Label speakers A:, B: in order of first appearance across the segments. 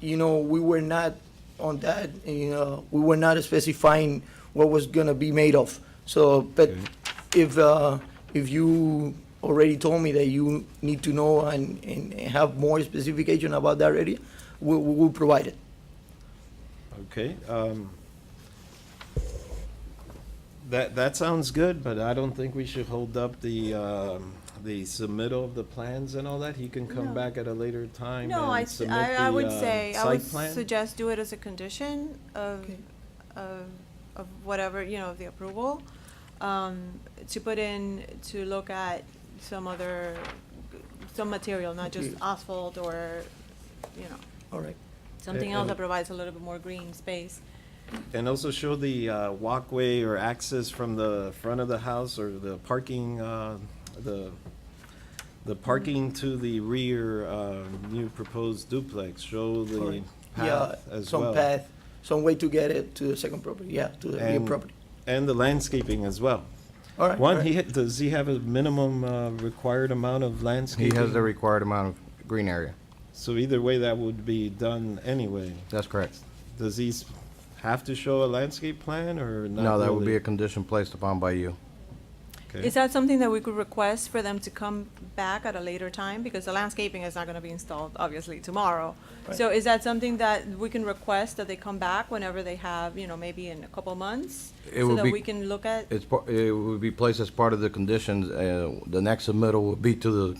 A: you know, we were not on that, you know, we were not specifying what was gonna be made of. So, but if, uh, if you already told me that you need to know and, and have more specification about that area, we, we will provide it.
B: Okay, um, that, that sounds good, but I don't think we should hold up the, um, the submittal of the plans and all that. He can come
C: No.
B: back at a later time
C: No, I,
B: and
C: s-
B: submit
C: I- I
B: the,
C: would
B: uh,
C: say, I
B: site
C: would
B: plan.
C: suggest do it as a condition of,
A: Okay.
C: of, of whatever, you know, of the approval. Um, to put in, to look at some other, some material, not just
A: Material.
C: asphalt or, you know,
A: All right.
C: something else
B: and-
C: that provides a little bit more green space.
B: And also show the, uh, walkway or access from the front of the house or the parking, uh, the, the parking to the rear, uh, new proposed duplex. Show the
A: Correct. Yeah,
B: path as well.
A: some path, some way to get it to the second property, yeah, to the rear
B: And-
A: property.
B: And the landscaping as well.
A: All right. all
B: One,
A: right.
B: he, does he have a minimum uh, required amount of
D: He
B: landscaping?
D: has the required amount of green area.
B: So either way, that would be done anyway.
D: That's correct.
B: Does he s- have to show a landscape plan or not
D: No, that would be
B: really?
D: a condition placed upon by you.
B: Okay.
C: Is that something that we could request for them to come back at a later time? Because the landscaping is not gonna be installed, obviously, tomorrow. So is that something that we can request that they come back whenever they have, you know, maybe in a couple months?
D: It
C: So
D: would
C: that
D: be-
C: we can look at,
D: It's, par- it would be placed as part of the conditions, uh, the next submittal would be to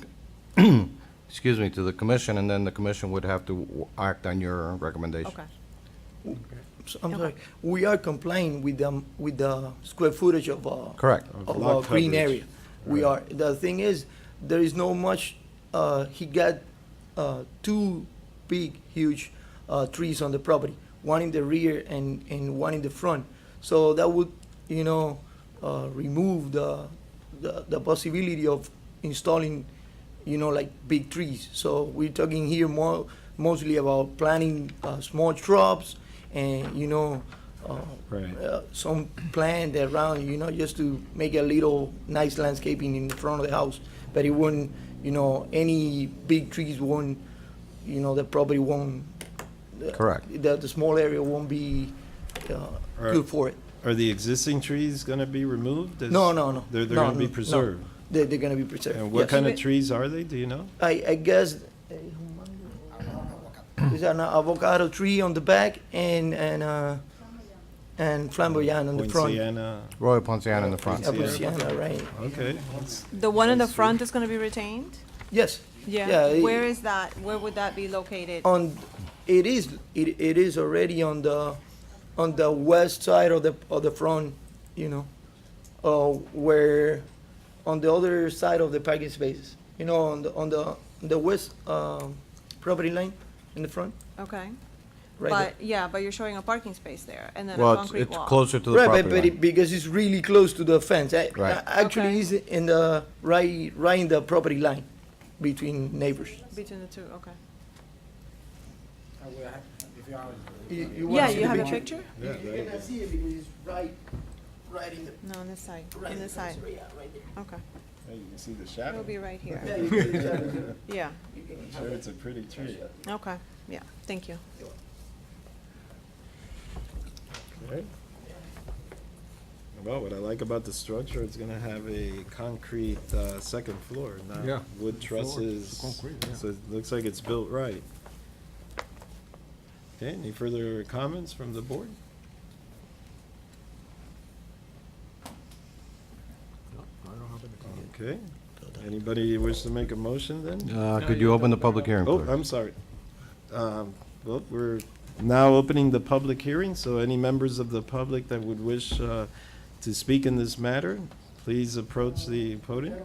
D: the, excuse me, to the commission, and then the commission would have to w- act on your recommendation.
C: okay.
A: So, I'm
C: Okay.
A: sorry, we are complying with them, with the square footage of, uh.
D: Correct.
B: Of
A: Of
B: lot
A: our green
B: coverage.
A: area. We are, the thing is, there is no much, uh, he got, uh, two big, huge, uh, trees on the property. One in the rear and, and one in the front. So that would, you know, uh, remove the, the, the possibility of installing, you know, like big trees. So we're talking here more, mostly about planting, uh, small shrubs and, you know, uh,
B: Right.
A: uh, some plant around, you know, just to make a little nice landscaping in the front of the house. But it wouldn't, you know, any big trees won't, you know, the property won't. uh,
D: Correct.
A: The, the small area won't be uh,
B: Right.
A: good for it.
B: Are the existing trees going to be removed? Is-
A: No, no, no.
B: They're, they're
A: No,
B: going to be
A: no, no.
B: preserved?
A: They're, they're gonna be preserved.
B: And what
A: yes.
B: kind of trees are they, do you know?
A: I, I guess uh, there's an avocado tree on the back and and uh, and flamboyant on the front.
B: Poinciana?
D: Royal Ponciano in the front.
A: Yeah, Poinciana, right?
B: Okay.
C: The one in the front is gonna be retained?
A: Yes.
C: Yeah,
A: it-
C: where is that, where would that be located?
A: on, it is, it, it is already on the, on the west side of the, of the front, you know, uh, where, on the other side of the parking spaces, you know, on the, on the, the west, um, property line in the front,
C: Okay,
A: right there.
C: but, yeah, but you're showing a parking space there and then a
D: Well, it's-
C: concrete
D: it's
C: wall.
D: closer to the
A: Right, but,
D: property
A: but
D: line.
A: it, because it's really close to the fence, A-
D: Right.
A: a- actually
C: Okay.
A: is in the, right, right in the property line between neighbors.
C: Between the two, okay.
E: I will have- if you are-
A: You- you wanna
C: Yeah,
A: see
C: you
A: the
C: have a picture?
B: Yeah, there you
A: You're gonna see it because it's right, right in the,
C: No, on this side,
A: right
C: on
A: in the
C: this side,
A: fence, yeah, right there.
C: okay.
B: You can see the
C: It'll
B: shadow.
C: be right here,
A: Yeah, you can- exactly.
C: yeah.
B: Sure, it's a pretty tree.
C: Okay, yeah, thank you.
B: Right. Well, what I like about the structure, it's gonna have a concrete, uh, second floor,
F: Yeah.
B: not wood
F: Floor, it's
B: trusses.
F: concrete, yeah.
B: So it looks like it's built right. Okay, any further comments from the board? Okay, anybody wish to make a motion then?
D: Uh, Could you open the public hearing,
B: Oh,
D: please?
B: I'm sorry. Um, Well, we're now opening the public hearing, so any members of the public that would wish uh, to speak in this matter, please approach the podium.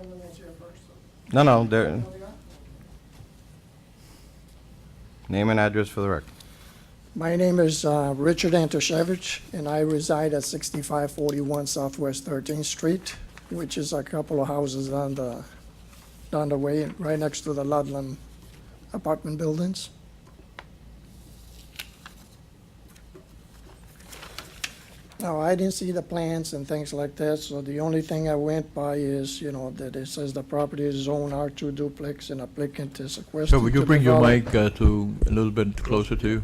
D: No, no, there. Name and address for the record.
G: My name is uh, Richard Antoshevich, and I reside at 6541 Southwest 13th Street, which is a couple of houses down the, down the way, right next to the Ludlam apartment buildings. Now, I didn't see the plans and things like that, so the only thing I went by is, you know, that it says the property is zone R2 duplex and applicant is requested
F: So would you
G: to
F: bring your
G: develop-
F: mic uh, to, a little bit closer to you?